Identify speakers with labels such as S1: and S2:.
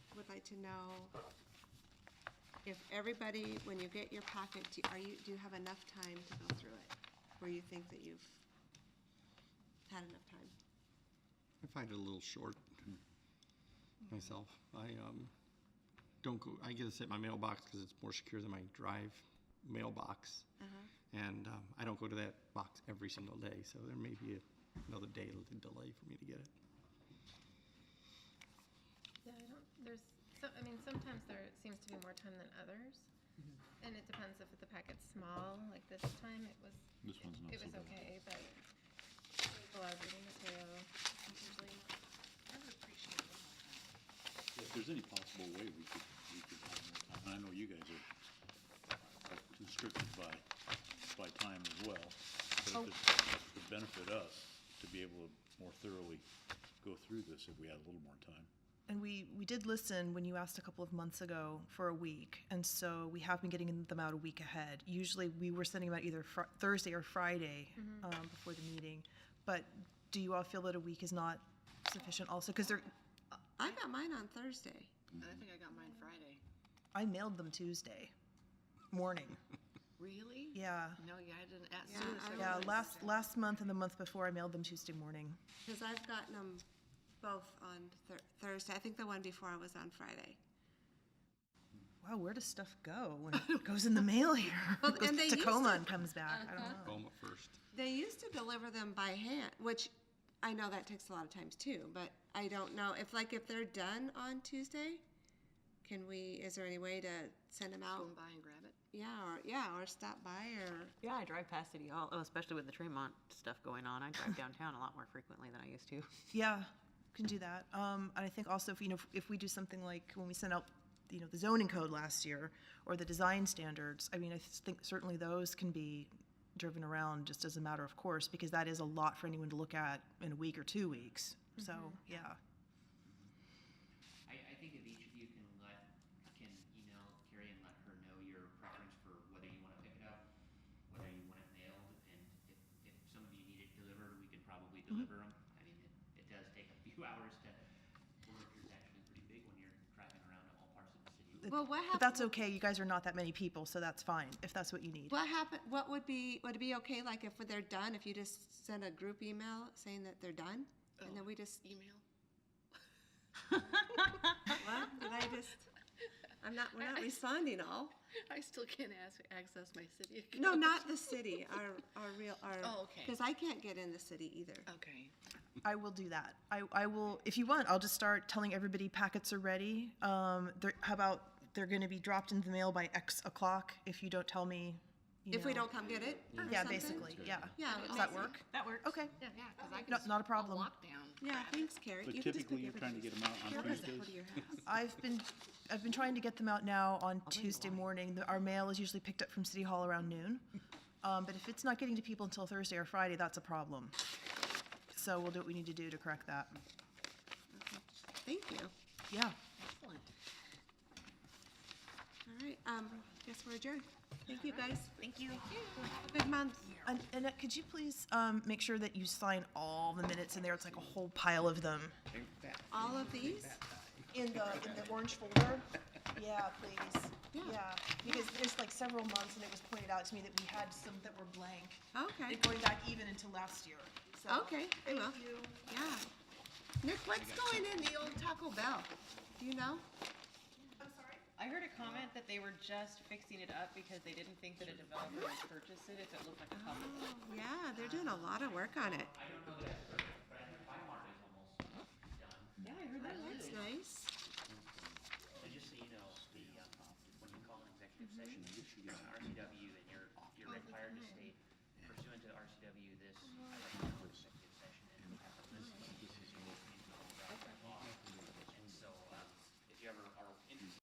S1: to know if everybody, when you get your packet, do- are you, do you have enough time to go through it? Where you think that you've had enough time?
S2: I find it a little short myself. I um, don't go, I get this at my mailbox because it's more secure than my drive mailbox. And um, I don't go to that box every single day, so there may be a- another day of delay for me to get it.
S3: Yeah, I don't, there's, so, I mean, sometimes there seems to be more time than others. And it depends if the packet's small, like this time it was.
S4: This one's not
S3: It
S4: so
S3: was
S4: bad.
S3: okay, but it's a lot of reading material. It's usually
S5: I would appreciate a little more time.
S4: If there's any possible way we could, we could have more time, and I know you guys are are constricted by, by time as well, but it would benefit us to be able to more thoroughly go through this if we had a little more time.
S5: And we, we did listen when you asked a couple of months ago for a week, and so we have been getting them out a week ahead. Usually, we were sending them out either fr- Thursday or Friday
S1: Mm-hmm.
S5: um, before the meeting. But do you all feel that a week is not sufficient? Also, because they're
S1: I got mine on Thursday.
S6: I think I got mine Friday.
S5: I mailed them Tuesday morning.
S6: Really?
S5: Yeah.
S6: No, yeah, I didn't. As
S1: Yeah,
S6: soon as
S1: I
S6: I
S1: don't
S5: Yeah,
S6: realized-
S5: last last month and the month before, I mailed them Tuesday morning.
S1: Because I've gotten them both on Thur- Thursday. I think the one before was on Friday.
S5: Wow, where does stuff go when it goes in the mail here?
S1: Well,
S5: It goes
S1: and they
S5: to
S1: used Uh-huh.
S5: Tacoma
S1: to-
S5: and comes back. I don't know.
S2: Home at first.
S1: They used to deliver them by hand, which I know that takes a lot of times too, but I don't know if like if they're done on Tuesday, can we is there any way to send them
S6: Go
S1: out?
S6: and buy and grab it.
S1: Yeah, or yeah, or stop by or
S7: Yeah, I drive past City Hall, oh, especially with the Tremont stuff going on. I drive downtown a lot more frequently than I used to.
S5: Yeah, can do that. Um, and I think also if, you know, if we do something like when we sent out, you know, the zoning code last year or the design standards, I mean, I think certainly those can be driven around just as a matter of course, because that is a lot for anyone to look at in a week or two weeks. So, yeah.
S8: I, I think if each of you can let, can email Carrie and let her know your preference for whether you wanna pick it up, whether you want it mailed, and if, if some of you need it delivered, we can probably deliver them. I mean, it, it does take a few hours to, work is actually pretty big when you're driving around to all parts of the city.
S1: Well, what
S5: But that's okay. You guys are not that many people, so that's fine if that's what you need.
S1: what happen what would be would it be okay like if they're done if you just send a group email saying that they're done and then we just
S6: Email.
S1: what did I just I'm not we're
S6: I-
S1: not
S6: I-
S1: responding all
S6: I still can't ask, access my city account.
S1: no not the city our our real our
S6: Oh, okay. Oh.
S1: because I can't get in the city either
S6: Okay.
S5: I will do that. I, I will, if you want, I'll just start telling everybody packets are ready. Um, they're, how about they're going to be dropped into the mail by X o'clock if you don't tell me? you
S1: if we
S5: know.
S1: don't come get it or
S5: Yeah,
S1: something?
S5: basically. Yeah.
S1: yeah
S5: Does that work?
S7: That works.
S5: Okay.
S6: Yeah, yeah, because I can.
S5: No-
S6: just
S5: not a problem.
S6: Walk down.
S1: Yeah, thanks, Carrie.
S4: But
S1: You can just
S4: typically,
S1: go
S4: you're
S1: give it
S4: trying to get them out on
S1: Carrie doesn't go
S4: Tuesdays?
S1: to your house.
S5: I've been, I've been trying to get them out now on Tuesday
S7: why.
S5: morning. The- Our mail is usually picked up from City Hall around noon. Um, but if it's not getting to people until Thursday or Friday, that's a problem. So we'll do what we need to do to correct that.
S1: Thank you.
S5: Yeah.
S6: Excellent.
S1: All right, um, guess we're adjourned. Thank you, guys. Thank you. Good month.
S5: And Annette, could you please um, make sure that you sign all the minutes in there? It's like a whole pile of them.
S1: All of these?
S5: In the, in the orange folder? Yeah, please.
S1: Yeah.
S5: Yeah, because there's like several months and it was pointed out to me that we had some that were blank.
S1: Okay,
S5: And going back even into last year, so.
S1: okay, I will.
S5: Thank you.
S1: Yeah. Nick, what's going in the old Taco Bell? Do you know?
S7: I heard a comment that they were just fixing it up because they didn't think that a developer would purchase it if it looked like a public.
S1: Yeah, they're doing a lot of work on it.
S8: I don't know that it's perfect, but I think Bimart is almost done.
S7: Yeah, I heard
S1: That's nice.
S8: So just so you know, the, um, when you call an executive session, an RCW um,